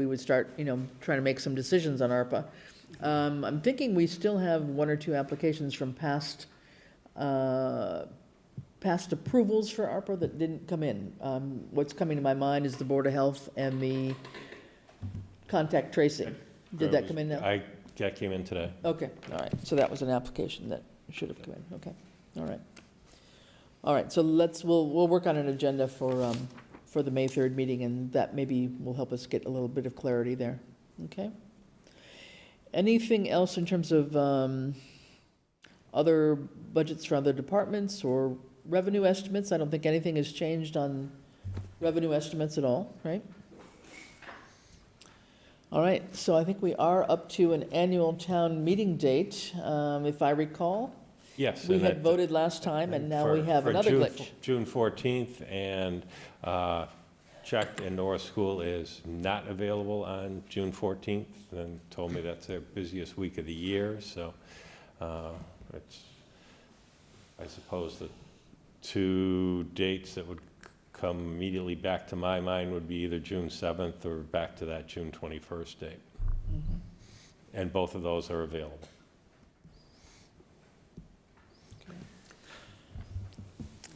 we would start, you know, trying to make some decisions on ARPA. Um, I'm thinking we still have one or two applications from past, uh, past approvals for ARPA that didn't come in. Um, What's coming to my mind is the Board of Health and the contact tracing. Did that come in now? I, that came in today. Okay, all right, so that was an application that should have come in, okay, all right. All right, so let's, we'll, we'll work on an agenda for, um, for the May third meeting, and that maybe will help us get a little bit of clarity there, okay? Anything else in terms of, um, other budgets for other departments or revenue estimates? I don't think anything has changed on revenue estimates at all, right? All right, so I think we are up to an annual town meeting date, um, if I recall. Yes. We and had that- voted last time, and now we for- have for another June- glitch. June 14th, and uh, checked, and Norris School is not available on June 14th, and told me that's their busiest week of the year, so uh, it's, I suppose the two dates that would c- come immediately back to my mind would be either June 7th or back to that June 21st date, and both of those are available.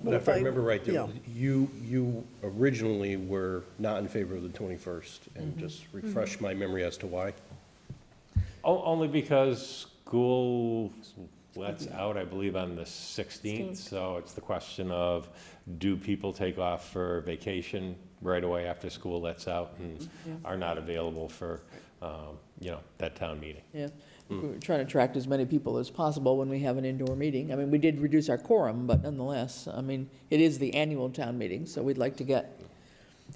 But if I remember right, there yeah. was- you, you originally were not in favor of the 21st, Mm-hmm. and just refresh my memory as to why. O- Only because school lets out, I believe, on the sixteenth, so it's the question of, do people take off for vacation right away after school lets out Mm-hmm. and are not available for, um, you know, that town meeting? Yeah, we we're trying to attract as many people as possible when we have an indoor meeting. I mean, we did reduce our quorum, but nonetheless, I mean, it is the annual town meeting, so we'd like to get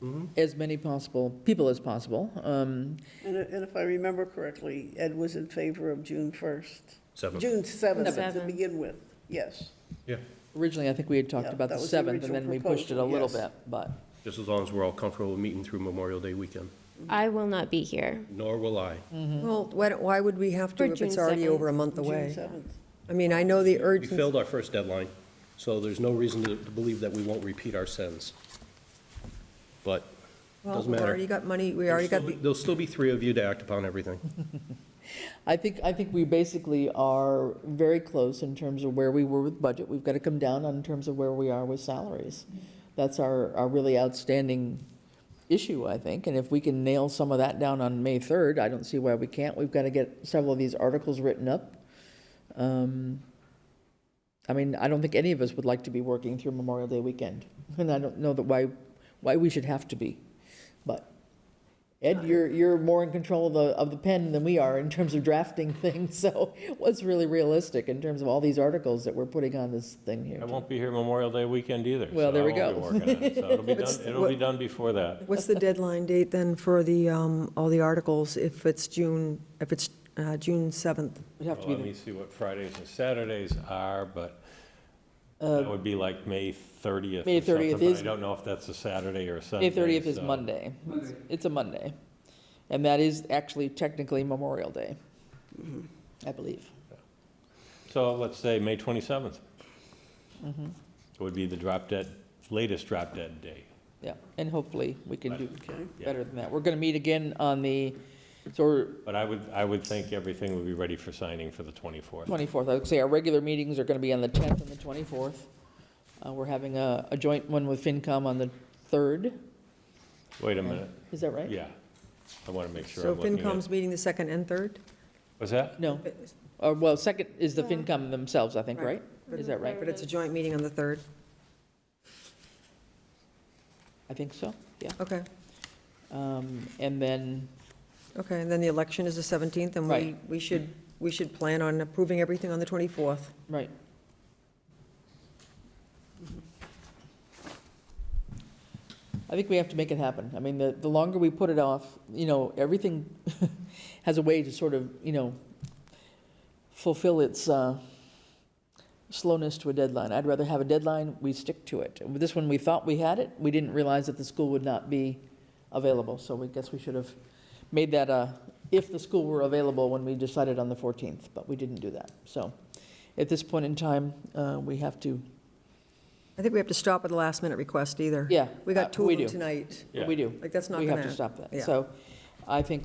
Mm-hmm. as many possible, people as possible. Um, And i- and if I remember correctly, Ed was in favor of June 1st. Seventh. June 7th to Seventh. begin with, yes. Yeah, Originally, I think we had talked Yeah, about that the was the 7th, and original then we pushed it a proposal, little yes. bit, but, just as long as we're all comfortable with meeting through Memorial Day weekend, I will not be here. nor will I. Well, why, don't- why would we have to For if it's June already 2nd. over a month away? June 7th. I mean, I know the We urgency, failed our first deadline, so there's no reason to to believe that we won't repeat our sins. But, well, doesn't we've matter. already got money, we already got, There'll the still- There'll still be three of you to act upon everything. I think, I think we basically are very close in terms of where we were with budget. We've got to come down on terms of where we are with salaries. That's our, our really outstanding issue, I think. And if we can nail some of that down on May 3rd, I don't see why we can't. We've got to get several of these articles written up. Um, I mean, I don't think any of us would like to be working through Memorial Day weekend. And I don't know that why, why we should have to be. But Ed, you're, you're more in control of the, of the pen than we are in terms of drafting things, so what's really realistic in terms of all these articles that we're putting on this thing here? I won't be here Memorial Day weekend either. Well, so there I we won't go. be working on it, So it'll be What's- done, it'll be done before that. what's the deadline date then for the, um, all the articles if it's June, if it's uh, June 7th? It'd have to Well, be Let me the- see what Fridays and Saturdays are, but that would be like May 30th Uh, May or something, 30th but is- I don't know if that's a Saturday or a Sunday. May thirtieth is so- Monday. It's- It's a Monday. And that is actually technically Memorial Day, Mm-hmm. I believe. So let's say May 27th. Would be the drop dead, latest drop dead day. Yeah, and hopefully we can do Okay. better than that. We're gonna meet again on the, so we're, But I would, I would think everything would be ready for signing for the 24th. 24th. I would say our regular meetings are going to be on the 10th and the 24th. Uh, We're having a, a joint one with FinCom on the 3rd, Wait a minute, is that right? yeah. I want to make sure So I'm looking at. FinCom's meeting the 2nd and 3rd? What's that? No, or, well, second is the FinCom themselves, I think, right? Right. Is that right? But it's a joint meeting on the 3rd, I think so, yeah. okay, Um, And then, okay, and then the election is the 17th, and we, Right. we should, we should plan on approving everything on the 24th. right. I think we have to make it happen. I mean, the, the longer we put it off, you know, everything has a way to sort of, you know, fulfill its uh, slowness to a deadline. I'd rather have a deadline, we stick to it. With This one, we thought we had it, we didn't realize that the school would not be available, so we guess we should have made that a, if the school were available when we decided on the 14th, but we didn't do that. So at this point in time, uh, we have to, I think we have to stop at the last minute request either. yeah. We got uh, two we of them do. tonight, Yeah. We do. like, that's not We gonna. have to stop that. yeah. So I think